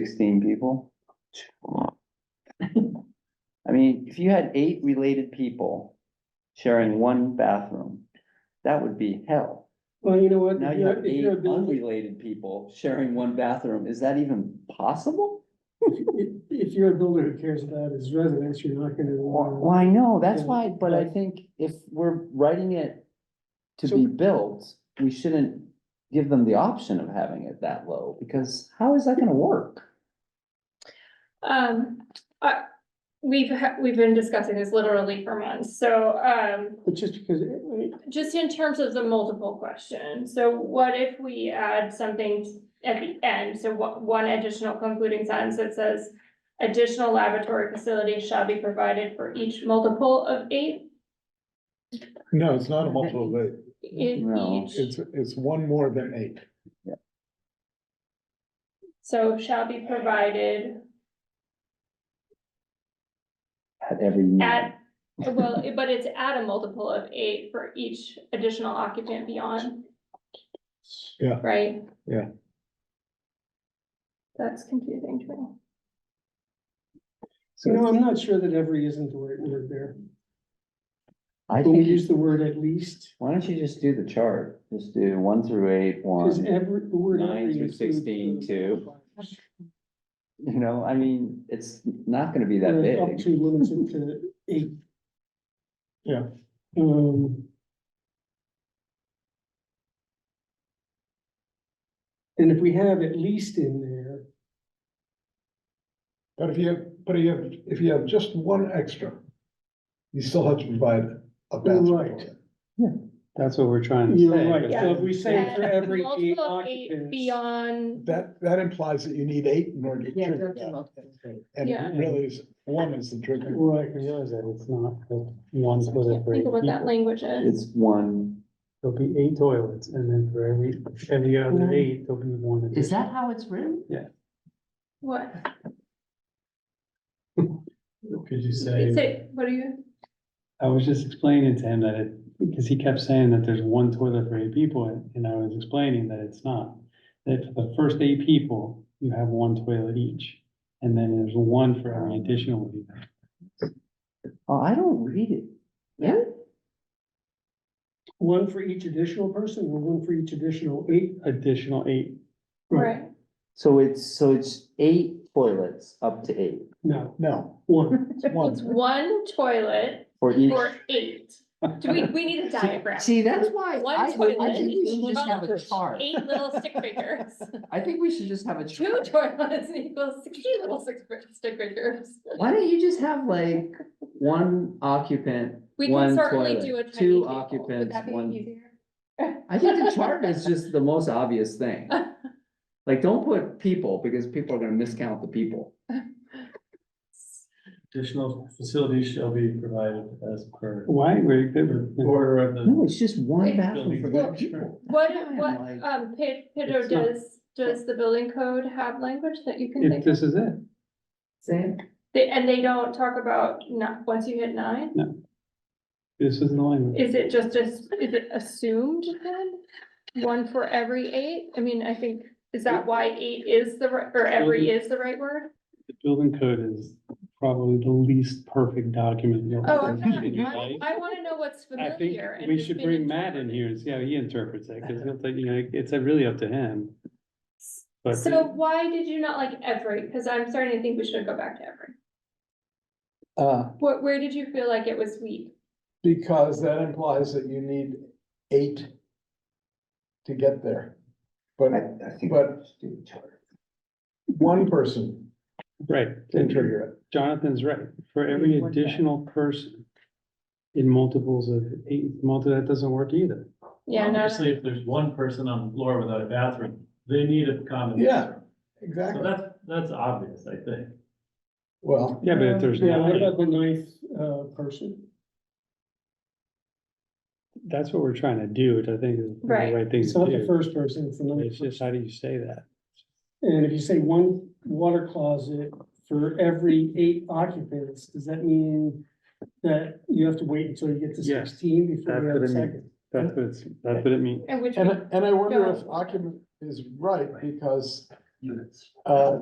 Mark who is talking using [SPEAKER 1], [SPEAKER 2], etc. [SPEAKER 1] sixteen people. I mean, if you had eight related people sharing one bathroom, that would be hell.
[SPEAKER 2] Well, you know what?
[SPEAKER 1] Now
[SPEAKER 2] if
[SPEAKER 1] you
[SPEAKER 2] you're-
[SPEAKER 1] have
[SPEAKER 2] if
[SPEAKER 1] eight
[SPEAKER 2] you're a business-
[SPEAKER 1] unrelated people sharing one bathroom, is that even possible?
[SPEAKER 2] If, if you're a builder who cares about his residents, you're not gonna.
[SPEAKER 1] Well,
[SPEAKER 2] uh,
[SPEAKER 1] well, I know, that's
[SPEAKER 2] Yeah,
[SPEAKER 1] why, but I
[SPEAKER 2] but-
[SPEAKER 1] think if we're writing it to
[SPEAKER 2] So-
[SPEAKER 1] be built, we shouldn't give them the option of having it that low, because how is that gonna work?
[SPEAKER 3] Um, uh, we've, ha- we've been discussing this literally for months, so, um,
[SPEAKER 2] But just because, it- it-
[SPEAKER 3] just in terms of the multiple question, so what if we add something at the end? So what, one additional concluding sentence that says, additional laboratory facilities shall be provided for each multiple of eight
[SPEAKER 4] No, it's not a multiple of eight.
[SPEAKER 3] in
[SPEAKER 1] No.
[SPEAKER 3] each.
[SPEAKER 4] It's, it's one more than eight.
[SPEAKER 3] So shall be provided
[SPEAKER 1] At every meeting?
[SPEAKER 3] at, well, but it's at a multiple of eight for each additional occupant beyond.
[SPEAKER 4] Yeah.
[SPEAKER 3] Right?
[SPEAKER 4] Yeah.
[SPEAKER 3] That's confusing to me.
[SPEAKER 1] So
[SPEAKER 2] you know,
[SPEAKER 1] it's-
[SPEAKER 2] I'm not sure that every isn't the right word there.
[SPEAKER 1] I
[SPEAKER 2] When we
[SPEAKER 1] think,
[SPEAKER 2] use
[SPEAKER 1] you-
[SPEAKER 2] the word at least,
[SPEAKER 1] why don't you just do the chart, just do one through eight,
[SPEAKER 2] because
[SPEAKER 1] one,
[SPEAKER 2] every, the word.
[SPEAKER 1] Nine
[SPEAKER 2] every
[SPEAKER 1] through
[SPEAKER 2] includes
[SPEAKER 1] 16
[SPEAKER 2] the-
[SPEAKER 1] too. you know, I mean, it's not gonna be that
[SPEAKER 2] Whereas Up
[SPEAKER 1] big.
[SPEAKER 2] to limits it to eight.
[SPEAKER 4] Yeah.
[SPEAKER 2] Um. And if we have at least in there,
[SPEAKER 4] But if you have, but if you have, if you have just one extra, you still have to provide a bathroom.
[SPEAKER 2] Right.
[SPEAKER 5] That's what we're trying to say.
[SPEAKER 2] you're right, so if we say
[SPEAKER 3] Yeah.
[SPEAKER 2] for every eight
[SPEAKER 3] Multiple of eight
[SPEAKER 2] occupants.
[SPEAKER 3] Beyond,
[SPEAKER 4] That, that implies that you need eight in order to
[SPEAKER 6] Yeah, you
[SPEAKER 4] trigger
[SPEAKER 6] have to
[SPEAKER 4] that.
[SPEAKER 6] multiply.
[SPEAKER 4] And
[SPEAKER 3] Yeah.
[SPEAKER 4] it really is, one is the trigger.
[SPEAKER 2] Right,
[SPEAKER 5] I realize that it's not that one's for the
[SPEAKER 3] I
[SPEAKER 5] for eight
[SPEAKER 3] think of what that
[SPEAKER 5] people.
[SPEAKER 3] language is.
[SPEAKER 1] It's one,
[SPEAKER 5] There'll be eight toilets and then for every, every
[SPEAKER 2] Mhm.
[SPEAKER 3] Mm-hmm.
[SPEAKER 5] other eight, there'll be one.
[SPEAKER 6] Is
[SPEAKER 5] additional.
[SPEAKER 6] that how it's written?
[SPEAKER 3] What?
[SPEAKER 5] Could you say,
[SPEAKER 3] Say, what are you,
[SPEAKER 5] I was just explaining to him that it, because he kept saying that there's one toilet for eight people and- and I was explaining that it's not. That for the first eight people, you have one toilet each and then there's one for every additional. eight.
[SPEAKER 1] oh, I don't read it.
[SPEAKER 6] Yeah.
[SPEAKER 2] One for each additional person or one for each additional eight?
[SPEAKER 5] Additional eight,
[SPEAKER 3] right,
[SPEAKER 1] So it's, so it's eight toilets up to eight
[SPEAKER 2] No,
[SPEAKER 4] No,
[SPEAKER 2] one.
[SPEAKER 4] it's
[SPEAKER 3] it's
[SPEAKER 4] one.
[SPEAKER 3] one toilet
[SPEAKER 1] for each,
[SPEAKER 3] for eight. Do we, we need a diagram,
[SPEAKER 6] See, that's why
[SPEAKER 3] One
[SPEAKER 6] I, I
[SPEAKER 3] toilet
[SPEAKER 6] think we should
[SPEAKER 3] equals
[SPEAKER 6] just have a chart.
[SPEAKER 3] eight little stick figures,
[SPEAKER 6] I think we should just have a
[SPEAKER 3] two
[SPEAKER 6] chart.
[SPEAKER 3] toilets equals sixty little stick stick figures.
[SPEAKER 1] Why don't you just have like one occupant,
[SPEAKER 3] We
[SPEAKER 1] one
[SPEAKER 3] can certainly do a
[SPEAKER 1] toilet,
[SPEAKER 3] tiny
[SPEAKER 1] two
[SPEAKER 3] table. Would
[SPEAKER 1] occupants,
[SPEAKER 3] that be
[SPEAKER 1] one.
[SPEAKER 3] easier?
[SPEAKER 1] I think the chart is just the most obvious thing. Like, don't put people, because people are gonna miscount the people.
[SPEAKER 7] Additional facilities shall be provided as per
[SPEAKER 5] why, we're good.
[SPEAKER 7] order of the.
[SPEAKER 1] No, it's just one
[SPEAKER 3] Wait,
[SPEAKER 1] bathroom for
[SPEAKER 7] building
[SPEAKER 1] eight people.
[SPEAKER 3] What,
[SPEAKER 1] I'm
[SPEAKER 3] what,
[SPEAKER 1] like-
[SPEAKER 3] um, Pe- Pedro,
[SPEAKER 5] It's not-
[SPEAKER 3] does, does the building code have language that you can
[SPEAKER 5] If
[SPEAKER 3] think of?
[SPEAKER 5] this is it.
[SPEAKER 6] Same.
[SPEAKER 3] They, and they don't talk about not, once you hit nine?
[SPEAKER 5] This is the language.
[SPEAKER 3] Is it just, as- is it assumed then? One for every eight? I mean, I think, is that why eight is the, ri- or every is the right word?
[SPEAKER 5] The building code is probably the least perfect document you'll
[SPEAKER 3] Oh,
[SPEAKER 5] ever
[SPEAKER 3] I'm
[SPEAKER 5] read in your
[SPEAKER 3] not,
[SPEAKER 5] life.
[SPEAKER 3] I, I wanna know what's
[SPEAKER 5] I think
[SPEAKER 3] familiar. and
[SPEAKER 5] we
[SPEAKER 3] who's
[SPEAKER 5] should
[SPEAKER 3] been
[SPEAKER 5] bring Matt in
[SPEAKER 3] interpreted.
[SPEAKER 5] here and see how he interprets it, because he'll take, you know, it's really up to him. But
[SPEAKER 3] So why did you not like every? Cause I'm starting to think we should go back to every.
[SPEAKER 4] Uh,
[SPEAKER 3] What, where did you feel like it was weak?
[SPEAKER 4] because that implies that you need eight to get there. But
[SPEAKER 1] think
[SPEAKER 4] But-
[SPEAKER 1] just do the chart.
[SPEAKER 4] one person
[SPEAKER 5] Right,
[SPEAKER 4] can trigger it.
[SPEAKER 5] Jonathan's right, for every
[SPEAKER 6] Maybe one guy.
[SPEAKER 5] additional person in multiples of eight, multi, that doesn't work either.
[SPEAKER 3] Yeah,
[SPEAKER 5] Um,
[SPEAKER 3] no.
[SPEAKER 7] Obviously, if there's one person on the floor without a bathroom, they need a common
[SPEAKER 4] Yeah.
[SPEAKER 7] bathroom. So
[SPEAKER 4] Exactly.
[SPEAKER 7] that's, that's obvious, I think.
[SPEAKER 4] Well,
[SPEAKER 5] Yeah, but if there's
[SPEAKER 2] Yeah, what
[SPEAKER 5] nine,
[SPEAKER 2] about the ninth, uh, person?
[SPEAKER 5] that's what we're trying to do, which I think is the
[SPEAKER 3] Right.
[SPEAKER 5] right thing
[SPEAKER 2] It's
[SPEAKER 5] to
[SPEAKER 2] not the
[SPEAKER 5] do.
[SPEAKER 2] first person, it's the ninth.
[SPEAKER 5] It's just, how do you say that?
[SPEAKER 2] And if you say one water closet for every eight occupants, does that mean that you have to wait until you get to
[SPEAKER 5] Yes,
[SPEAKER 2] sixteen before
[SPEAKER 5] that's
[SPEAKER 2] you have a
[SPEAKER 5] what I mean.
[SPEAKER 2] second?
[SPEAKER 5] That's what it's, that's what it means.
[SPEAKER 3] And which,
[SPEAKER 4] and,
[SPEAKER 3] we-
[SPEAKER 4] and I wonder
[SPEAKER 3] Yeah.
[SPEAKER 4] if occupant is right because, uh,